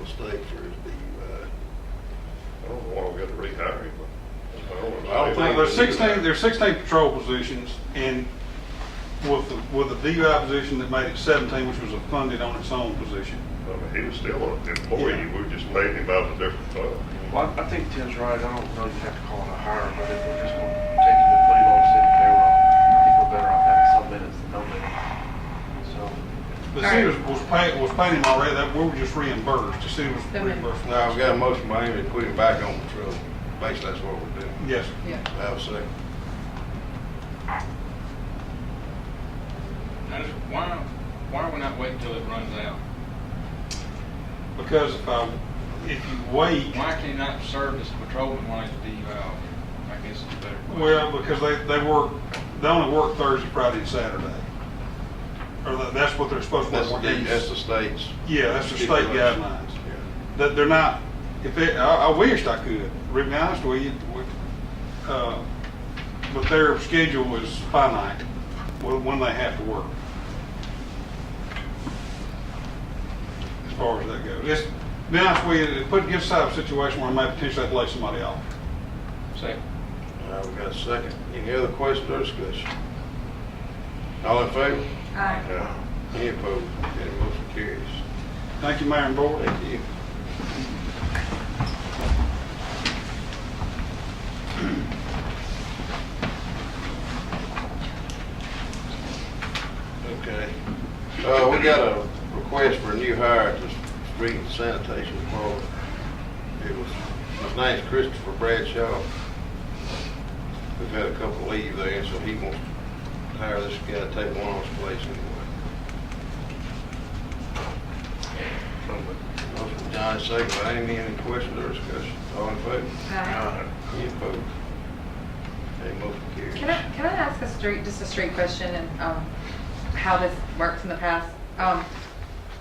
mistake for his DUI. I don't know why we got to rehire him. but I don't know. I don't think, there's sixteen, there's sixteen patrol positions, and with, the- with the DUI position that made it seventeen, which was a funded on its own position. I mean, He was still an employee, we were just paying him out of a different fund. Well, I I think Tim's right. I don't know if you have to call it a hire, but if we're just going to take it and put it on city payroll, I think we're better off having some minutes than no minutes. So, The city was, was paying, was paying him already, that, we were just reimbursed, the city was They were- reimbursed. Now, we got a motion by him to put him back on patrol. Basically, that's what we're doing. Yes, Yeah, I would say. Now, just why, why are we not waiting till it runs out? because if I, if you wait, Why can you not serve as a patrolman while he's DUI? I guess is a better question. well, because they, they work, they only work Thursday, Friday, and Saturday. Or that, that's what they're supposed to That's work. the, that's the state's. Yeah, that's the state guidelines. Yeah. that they're not, if it, I, I wished I could, to be honest with you, with, uh, but their schedule is finite, when, when they have to work. As far as that goes. It's, to be honest with you, it put, gets out of a situation where I may potentially have to lay somebody off. Second. All right, Uh, we got a second. Any other questions or discussion? All in favor? aye. Yeah. Any opposed? Any motion carries? Thank you, Mayor and Board. Thank you. Okay. Uh, we got a request for a new hire at the street and sanitation department. It was, his name's Christopher Bradshaw. We've had a couple leave there, so he wants to hire this guy to take one of his place anyway. Motion by Johnny, second by Amy, any questions or discussion? All in favor? Aye. Any opposed? Any motion carries? Can I, can I ask a straight, just a straight question and, um, how this works in the past? Um,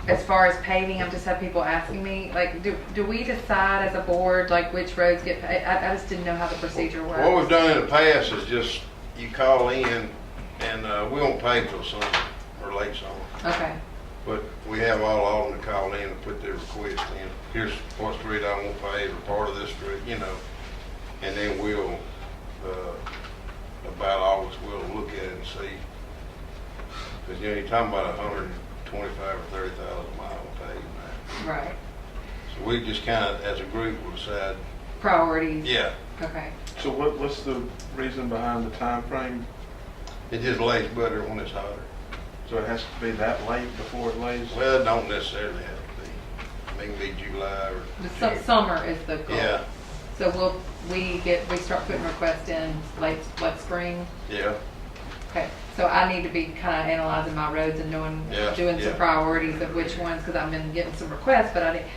as far as paving, I've just had people asking me, like, do, do we decide as a board, like, which roads get paved? I, I just didn't know how the procedure works. What we've done in the past is just, you call in, and uh, we won't pay till summer or late summer. Okay, But we have all of them to call in and put their request in. Here's what street I won't pay, or part of this street, you know. And then we'll, uh, about August, we'll look at it and see. Because, you know, you're talking about a hundred and twenty-five or thirty thousand mile paved now. right. So we just kind of, as a group, will decide, Priorities? yeah, Okay, so what, what's the reason behind the time frame? it just lays better when it's hotter. So it has to be that late before it lays? Well, it don't necessarily have to be. It can be July or. the su- summer is the goal. Yeah, So we'll, we get, we start putting requests in late, late spring? yeah, Okay, so I need to be kind of analyzing my roads and knowing, Yeah, doing some yeah. priorities of which ones, because I've been getting some requests, but I didn't.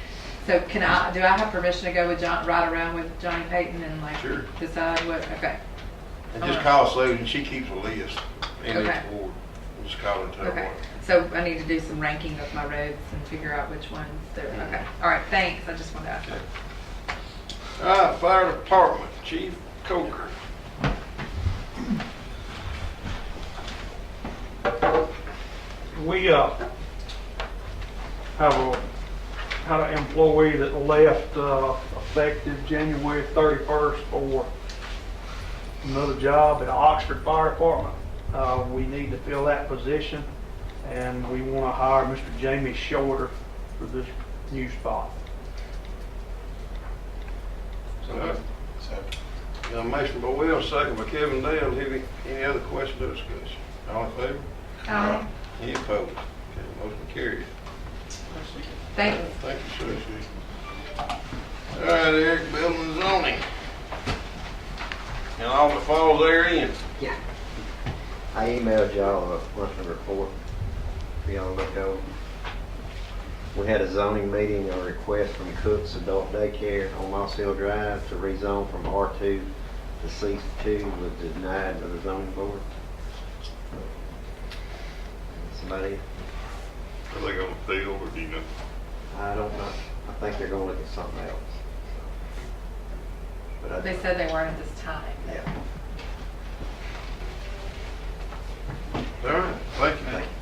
So can I, do I have permission to go with John, ride around with Johnny Payton and like Sure. decide what, okay, and just Alright. call Susan, she keeps a list in Okay. each ward, just call her to her okay. one. So I need to do some ranking of my roads and figure out which ones they're, okay, Mm-hmm. all right, thanks, I just wanted to ask. that. All right, fire department, Chief Coker. we uh, have a, had an employee that left uh, effective January 31st for another job at Oxford Fire Department. Uh, We need to fill that position, and we want to hire Mr. Jamie Shorter for this new spot. Got a motion by Will, second by Kevin Dale, any, any other questions or discussion? All in favor? Um, Any opposed? Okay, motion carries. Thank, Thank you, sir. All right, Eric, building and zoning. And all the falls therein. Yeah. I emailed y'all uh, a monthly report, if y'all look over. We had a zoning meeting, a request from Cook's Adult Daycare on Moss Hill Drive to rezone from R2 to C2 was denied by the zoning board. Somebody, Are they gonna appeal or do you know? I don't know, I think they're gonna look at something else. But I- they said they weren't at this time. Yeah, All right, thank you. thank you.